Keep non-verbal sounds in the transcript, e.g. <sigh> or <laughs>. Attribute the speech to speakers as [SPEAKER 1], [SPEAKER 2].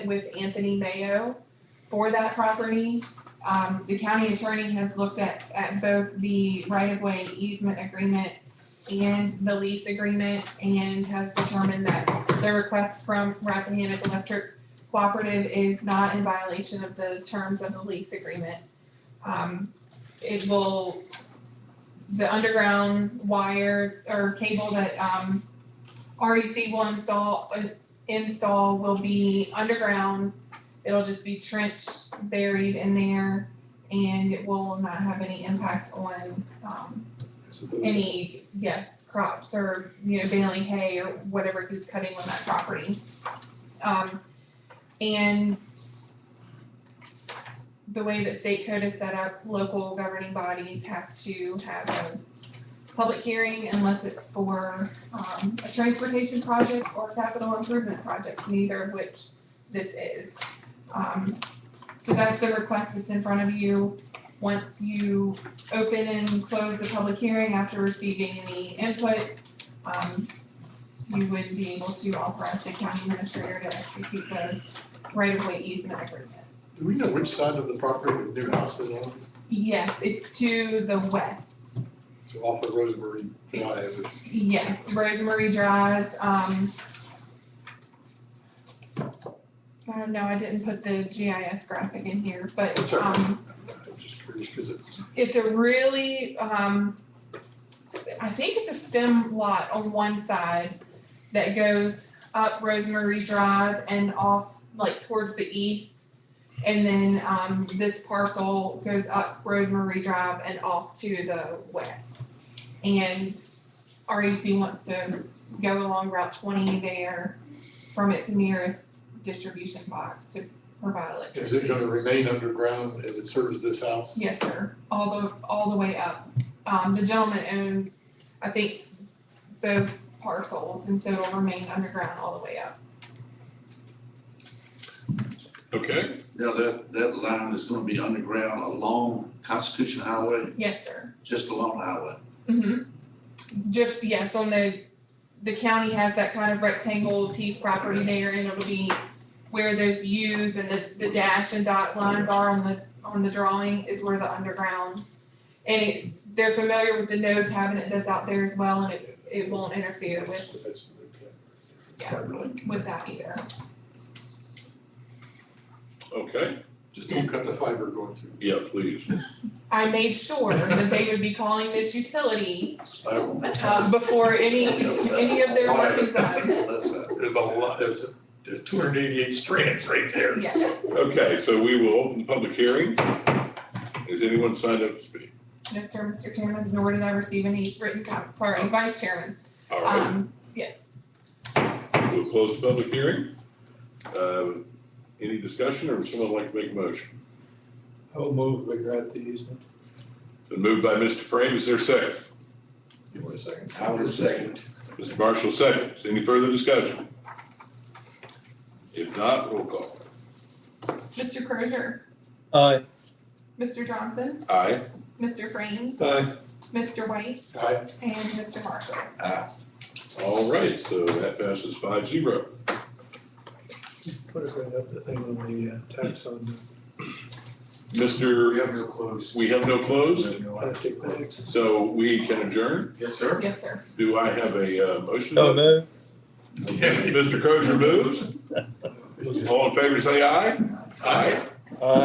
[SPEAKER 1] with Anthony Mayo for that property. Um, the county attorney has looked at, at both the right-of-way easement agreement and the lease agreement and has determined that the request from Rappahannock Electric Cooperative is not in violation of the terms of the lease agreement. Um, it will, the underground wire or cable that, um, REC will install, uh, install will be underground. It'll just be trenched, buried in there, and it will not have any impact on, um, any, yes, crops or, you know, baling hay or whatever he's cutting on that property. Um, and the way that state code is set up, local governing bodies have to have a public hearing unless it's for, um, a transportation project or capital improvement project, neither of which this is. Um, so that's the request that's in front of you. Once you open and close the public hearing after receiving any input, um, you would be able to authorize the county administrator to execute the right-of-way easement agreement.
[SPEAKER 2] Do we know which side of the property the new house is on?
[SPEAKER 1] Yes, it's to the west.
[SPEAKER 2] So off of Rosemary Drive, it's
[SPEAKER 1] Yes, Rosemary Drive, um. Uh, no, I didn't put the GIS graphic in here, but,
[SPEAKER 2] That's all right.
[SPEAKER 1] um,
[SPEAKER 2] I'm just curious because it's,
[SPEAKER 1] it's a really um I think it's a stem lot on one side that goes up Rosemary Drive and off like towards the east. And then um this parcel goes up Rosemary Drive and off to the west. And REC wants to go along Route twenty there from its nearest distribution box to provide electricity.
[SPEAKER 2] is it gonna remain underground as it serves this house?
[SPEAKER 1] Yes, sir, all the, all the way up. Um, the gentleman owns, I think, both parcels, and so it'll remain underground all the way up.
[SPEAKER 3] Okay,
[SPEAKER 4] Now, that, that line is gonna be underground along Constitution Highway,
[SPEAKER 1] Yes, sir.
[SPEAKER 4] just along the highway.
[SPEAKER 1] Mm-hmm. Just, yes, on the, the county has that kind of rectangle piece property there, and it'll be where those U's and the, the dash and dot lines are on the, on the drawing is where the underground. And it's, they're familiar with the node cabinet that's out there as well, and it, it won't interfere with,
[SPEAKER 2] That's the new cat.
[SPEAKER 1] yeah, with that either.
[SPEAKER 3] okay,
[SPEAKER 2] Just don't cut the fiber going through.
[SPEAKER 3] yeah, please.
[SPEAKER 1] I made sure that they would be calling this utility
[SPEAKER 4] I don't-
[SPEAKER 1] um, before any, any of their work is done.
[SPEAKER 4] That's it.
[SPEAKER 2] There's a lot, there's, a- there's two hundred eighty-eight strands right there.
[SPEAKER 1] Yes,
[SPEAKER 3] Okay, so we will open the public hearing. Is anyone signed up to speak?
[SPEAKER 1] no, sir, Mr. Chairman, nor did I receive any written comments, sorry, Vice Chairman.
[SPEAKER 3] All right,
[SPEAKER 1] Um, yes,
[SPEAKER 3] we'll close the public hearing. Um, Any discussion or would someone like to make a motion?
[SPEAKER 5] I'll move we grant the easement.
[SPEAKER 3] Been moved by Mr. Frame, is there a second?
[SPEAKER 5] Give me a second.
[SPEAKER 4] I would second.
[SPEAKER 3] Mr. Marshall seconds, any further discussion? If not, roll call.
[SPEAKER 1] Mr. Crozier,
[SPEAKER 6] Aye.
[SPEAKER 1] Mr. Johnson,
[SPEAKER 3] Aye,
[SPEAKER 1] Mr. Frame,
[SPEAKER 5] Aye.
[SPEAKER 1] Mr. White,
[SPEAKER 2] Aye.
[SPEAKER 1] and Mr. Marshall.
[SPEAKER 3] all right, so that passes five zero.
[SPEAKER 5] Put it right up the thing on the uh, tax on the
[SPEAKER 3] Mr.,
[SPEAKER 4] have no close.
[SPEAKER 3] we have no closed,
[SPEAKER 5] plastic bags.
[SPEAKER 3] so we can adjourn.
[SPEAKER 4] Yes, <laughs> sir.
[SPEAKER 1] Yes, sir.
[SPEAKER 3] Do I have a uh, motion?
[SPEAKER 6] So moved.
[SPEAKER 3] <laughs> Mr. Crozier moves. All in favor, say aye. Aye.
[SPEAKER 6] Aye.